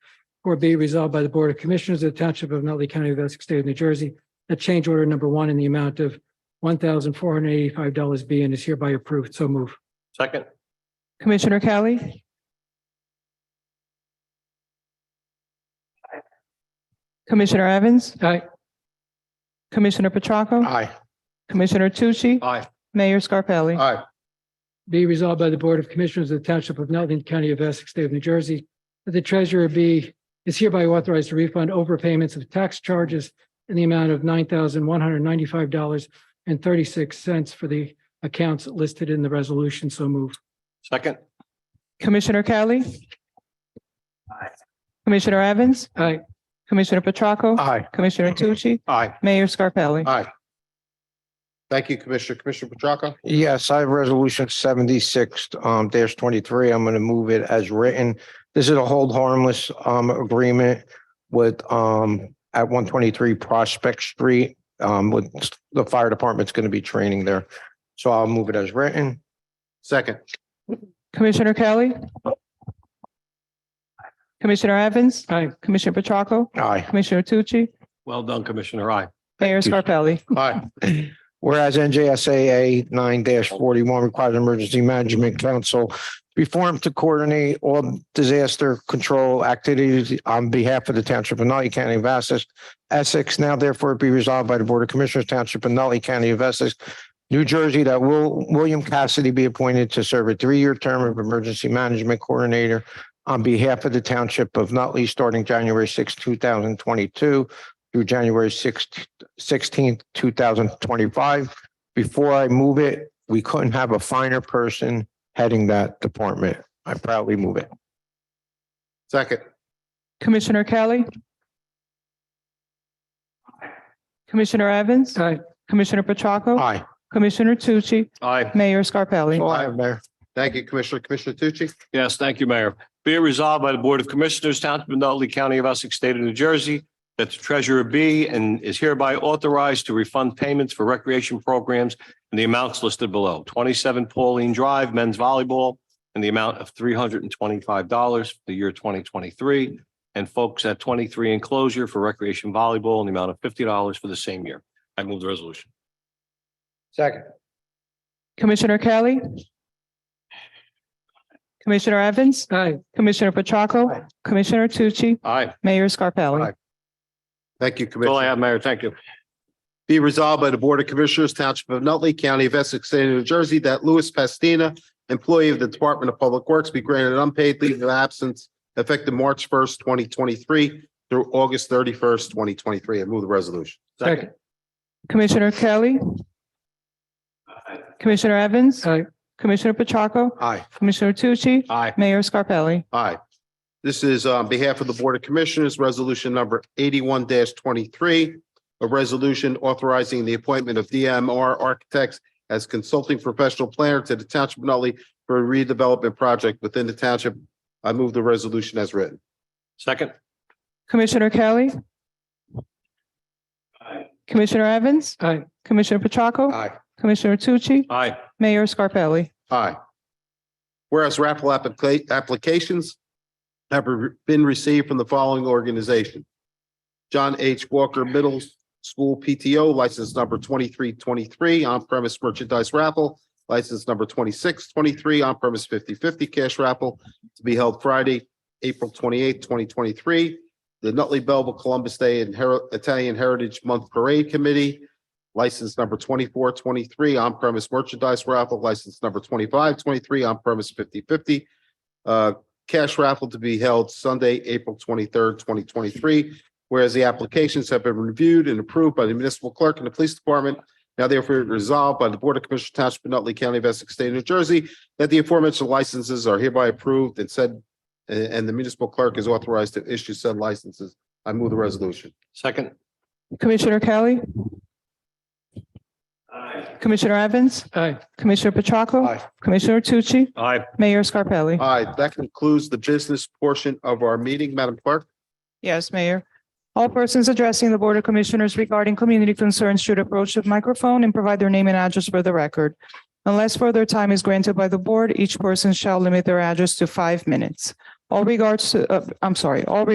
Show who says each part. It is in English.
Speaker 1: Or be resolved by the Board of Commissioners of the Township of Nutley County of Essex State of New Jersey, that change order number one in the amount of one thousand four hundred eighty-five dollars be and is hereby approved. So move.
Speaker 2: Second.
Speaker 3: Commissioner Kelly. Commissioner Evans,
Speaker 1: Aye.
Speaker 3: Commissioner Petracca,
Speaker 2: Aye.
Speaker 3: Commissioner Tucci,
Speaker 2: Aye.
Speaker 3: Mayor Scarpelli.
Speaker 2: Aye.
Speaker 1: Be resolved by the Board of Commissioners of the Township of Nutley County of Essex State of New Jersey that the treasurer be is hereby authorized to refund overpayments of tax charges in the amount of nine thousand one hundred ninety-five dollars and thirty-six cents for the accounts listed in the resolution. So move.
Speaker 2: Second.
Speaker 3: Commissioner Kelly. Commissioner Evans,
Speaker 1: Aye.
Speaker 3: Commissioner Petracca,
Speaker 2: Aye.
Speaker 3: Commissioner Tucci,
Speaker 2: Aye.
Speaker 3: Mayor Scarpelli.
Speaker 2: Aye. Thank you, Commissioner. Commissioner Petracca?
Speaker 4: Yes, I have resolution seventy-six um dash twenty-three. I'm going to move it as written. This is a hold harmless um agreement with um at one twenty-three Prospect Street. Um, with the fire department's going to be training there. So I'll move it as written.
Speaker 2: Second.
Speaker 3: Commissioner Kelly. Commissioner Evans,
Speaker 1: Aye.
Speaker 3: Commissioner Petracca,
Speaker 4: Aye.
Speaker 3: Commissioner Tucci,
Speaker 2: Well done, Commissioner. Aye.
Speaker 3: Mayor Scarpelli.
Speaker 2: Aye.
Speaker 4: Whereas NJSAA nine forty-one requires emergency management council to be formed to coordinate all disaster control activities on behalf of the township of Nutley County of Essex. Essex now therefore be resolved by the Board of Commissioners Township of Nutley County of Essex, New Jersey, that will William Cassidy be appointed to serve a three-year term of emergency management coordinator on behalf of the township of Nutley, starting January 6, thousand twenty-two through January 6, sixteenth, two thousand twenty-five. Before I move it, we couldn't have a finer person heading that department. I proudly move it.
Speaker 2: Second.
Speaker 3: Commissioner Kelly. Commissioner Evans,
Speaker 1: Aye.
Speaker 3: Commissioner Petracca,
Speaker 4: Aye.
Speaker 3: Commissioner Tucci,
Speaker 2: Aye.
Speaker 3: Mayor Scarpelli.
Speaker 4: All I have, Mayor.
Speaker 2: Thank you, Commissioner. Commissioner Tucci?
Speaker 5: Yes, thank you, Mayor. Be it resolved by the Board of Commissioners, Township of Nutley County of Essex, State of New Jersey, that the treasurer be and is hereby authorized to refund payments for recreation programs in the amounts listed below. Twenty-seven Pauline Drive, men's volleyball, in the amount of three hundred and twenty-five dollars for the year twenty twenty-three. And folks at twenty-three enclosure for recreation volleyball in the amount of fifty dollars for the same year. I move the resolution.
Speaker 4: Second.
Speaker 3: Commissioner Kelly. Commissioner Evans,
Speaker 1: Aye.
Speaker 3: Commissioner Petracca, Commissioner Tucci,
Speaker 5: Aye.
Speaker 3: Mayor Scarpelli.
Speaker 2: Aye. Thank you,
Speaker 5: That's all I
Speaker 2: Commissioner.
Speaker 5: have, Mayor. Thank you.
Speaker 2: Be resolved by the Board of Commissioners, Township of Nutley County of Essex, State of New Jersey, that Louis Pastina, employee of the Department of Public Works, be granted unpaid leave of absence effective March first, twenty twenty-three through August thirty-first, twenty twenty-three. I move the resolution.
Speaker 1: Second.
Speaker 3: Commissioner Kelly. Commissioner Evans,
Speaker 1: Aye.
Speaker 3: Commissioner Petracca,
Speaker 2: Aye.
Speaker 3: Commissioner Tucci,
Speaker 5: Aye.
Speaker 3: Mayor Scarpelli.
Speaker 2: Aye. This is uh, on behalf of the Board of Commissioners, Resolution Number eighty-one twenty-three, a resolution authorizing the appointment of DMR Architects as consulting professional planner to the Township of Nutley for a redevelopment project within the township. I move the resolution as written.
Speaker 5: Second.
Speaker 3: Commissioner Kelly. Commissioner Evans,
Speaker 1: Aye.
Speaker 3: Commissioner Petracca,
Speaker 2: Aye.
Speaker 3: Commissioner Tucci,
Speaker 5: Aye.
Speaker 3: Mayor Scarpelli.
Speaker 2: Aye. Whereas raffle applica- applications have re- been received from the following organization. John H. Walker Middle School PTO, license number twenty-three twenty-three, on-premise merchandise raffle, license number twenty-six twenty-three, on-premise fifty-fifty cash raffle to be held Friday, April twenty-eighth, twenty twenty-three. The Nutley Belleville Columbus Day and Heri- Italian Heritage Month Parade Committee, license number twenty-four twenty-three on-premise merchandise raffle, license number twenty-five twenty-three on-premise fifty-fifty. Uh, cash raffle to be held Sunday, April twenty-third, twenty twenty-three. Whereas the applications have been reviewed and approved by the municipal clerk and the police department. Now therefore resolved by the Board of Commissioners Township of Nutley County of Essex State of New Jersey that the aforementioned licenses are hereby approved and said, and, and the municipal clerk is authorized to issue said licenses. I move the resolution.
Speaker 5: Second.
Speaker 3: Commissioner Kelly. Commissioner Evans,
Speaker 1: Aye.
Speaker 3: Commissioner Petracca,
Speaker 2: Aye.
Speaker 3: Commissioner Tucci,
Speaker 5: Aye.
Speaker 3: Mayor Scarpelli.
Speaker 2: All right, that concludes the business portion of our meeting. Madam Clerk?
Speaker 3: Yes, Mayor. All persons addressing the Board of Commissioners regarding community concerns should approach the microphone and provide their name and address for the record. Unless further time is granted by the board, each person shall limit their address to five minutes. All regards to, uh, I'm sorry, all